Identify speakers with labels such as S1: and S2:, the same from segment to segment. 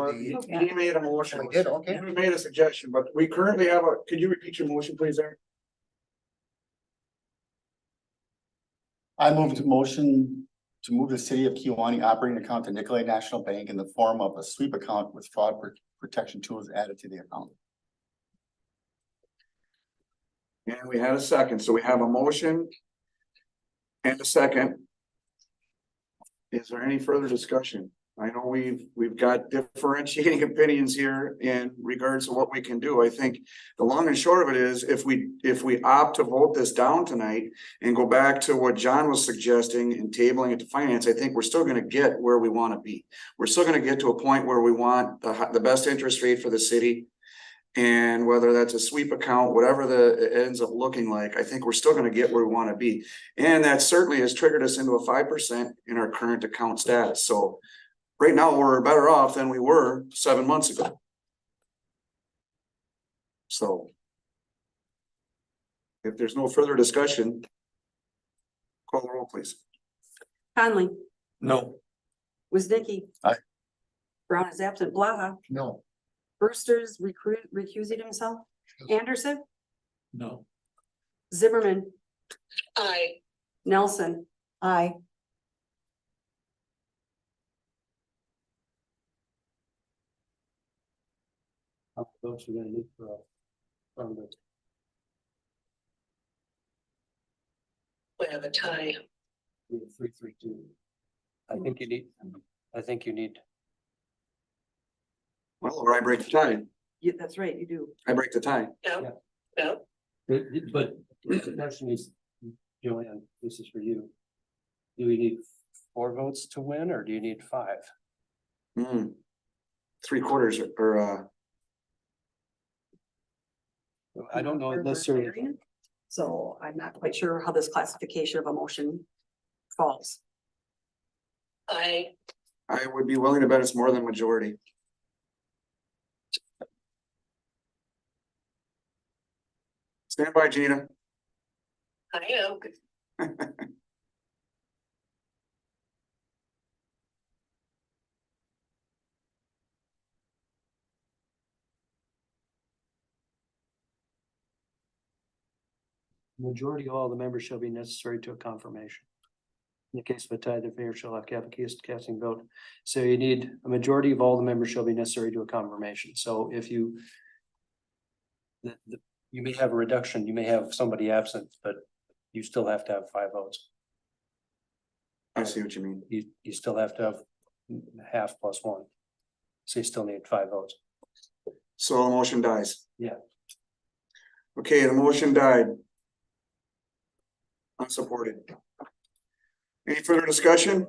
S1: uh,
S2: Indeed.
S1: you
S3: Okay.
S1: you made a motion.
S2: We did, okay.
S1: You made a suggestion, but we currently have a, could you repeat your motion, please, Eric?
S2: I move to motion to move the city of Kiwanee operating account to Nicolay National Bank in the form of a sweep account with fraud pr- protection tools added to the account.
S1: And we had a second, so we have a motion. And a second. Is there any further discussion? I know we've, we've got differentiating opinions here in regards to what we can do. I think. The long and short of it is, if we, if we opt to vote this down tonight and go back to what John was suggesting and tabling it to finance, I think we're still gonna get where we wanna be. We're still gonna get to a point where we want the, hi- the best interest rate for the city. And whether that's a sweep account, whatever the, it ends up looking like, I think we're still gonna get where we wanna be. And that certainly has triggered us into a five percent in our current account status, so. Right now, we're better off than we were seven months ago. So. If there's no further discussion. Call the roll, please.
S3: Conley,
S4: No.
S3: Wiznicki.
S2: Aye.
S3: Brown is absent, Blaha,
S2: No.
S3: Brewster's recruit, recusing himself, Anderson,
S4: No.
S3: Zimmerman,
S5: I,
S3: Nelson. Aye.
S4: Those are gonna need for. a- from the-
S5: we have a tie.
S4: from the Three, three, two. I think you need, I think you need,
S1: Well, or I break the tie,
S3: Yeah, that's right, you do.
S1: I break the tie.
S4: Yeah.
S5: No, no,
S4: but- but the question is, Joanne, this is for you. Do we need four votes to win or do you need five?
S1: Hmm. Three quarters or, uh,
S4: I don't know
S3: We're
S4: necessarily,
S3: variant, So I'm not quite sure how this classification of a motion falls.
S5: I,
S1: I would be willing to bet it's more than majority. Stand by, Gina.
S5: I know.
S4: majority of all the members shall be necessary to a confirmation. In the case of a tie, the mayor shall have a cast casting vote. So you need a majority of all the members shall be necessary to a confirmation. So if you. The, the, you may have a reduction, you may have somebody absent, but you still have to have five votes.
S1: I see what you mean.
S4: You, you still have to have half plus one. So you still need five votes.
S1: So the motion dies.
S4: Yeah.
S1: Okay, the motion died. Unsupported. Any further discussion?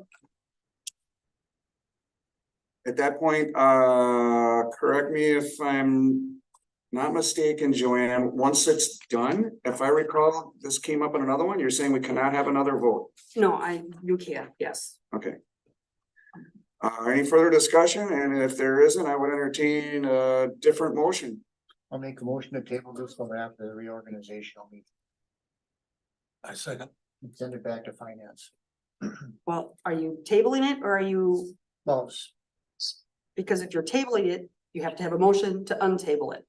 S1: At that point, uh, correct me if I'm not mistaken, Joanne, once it's done, if I recall, this came up in another one, you're saying we cannot have another vote.
S3: No, I, you can, yes.
S1: Uh, any further discussion? And if there isn't, I would entertain a different motion.
S2: I'll make a motion to table this one after the reorganization. meeting.
S4: I second.
S2: Send it back to finance.
S3: Well, are you tabling it or are you,
S2: Close.
S3: because if you're tabling it, you have to have a motion to untable it.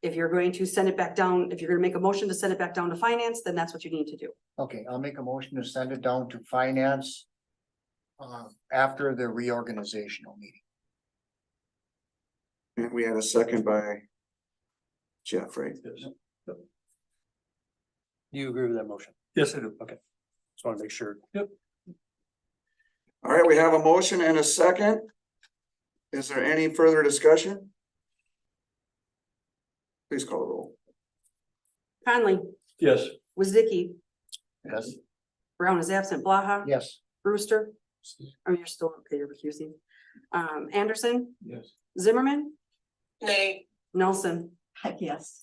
S3: If you're going to send it back down, if you're gonna make a motion to send it back down to finance, then that's what you need to do.
S2: Okay, I'll make a motion to send it down to finance. Uh, after the reorganizational meeting.
S1: And we had a second by Jeff, right?
S4: You agree with that motion? Yes, I do. Okay. Just want to make sure. Yep.
S1: All right, we have a motion and a second. Is there any further discussion? Please call the roll.
S3: Conley,
S4: Yes.
S3: Wizicki,
S2: Yes.
S3: Brown is absent, Blaha,
S2: Yes.
S3: Brewster, oh, you're still, okay, you're recusing. Um, Anderson,
S4: Yes.
S3: Zimmerman,
S5: nay,
S3: Nelson. Yes.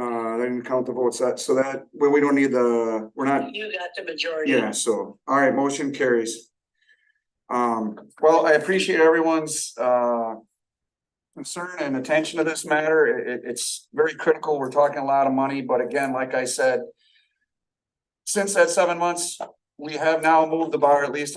S1: Uh, they didn't count the votes, that, so that, well, we don't need the, we're not,
S5: you got the majority.
S1: yeah, so, all right, motion carries. Um, well, I appreciate everyone's, uh, concern and attention to this matter. It- it- it's very critical. We're talking a lot of money, but again, like I said, since that seven months, we have now moved the bar at least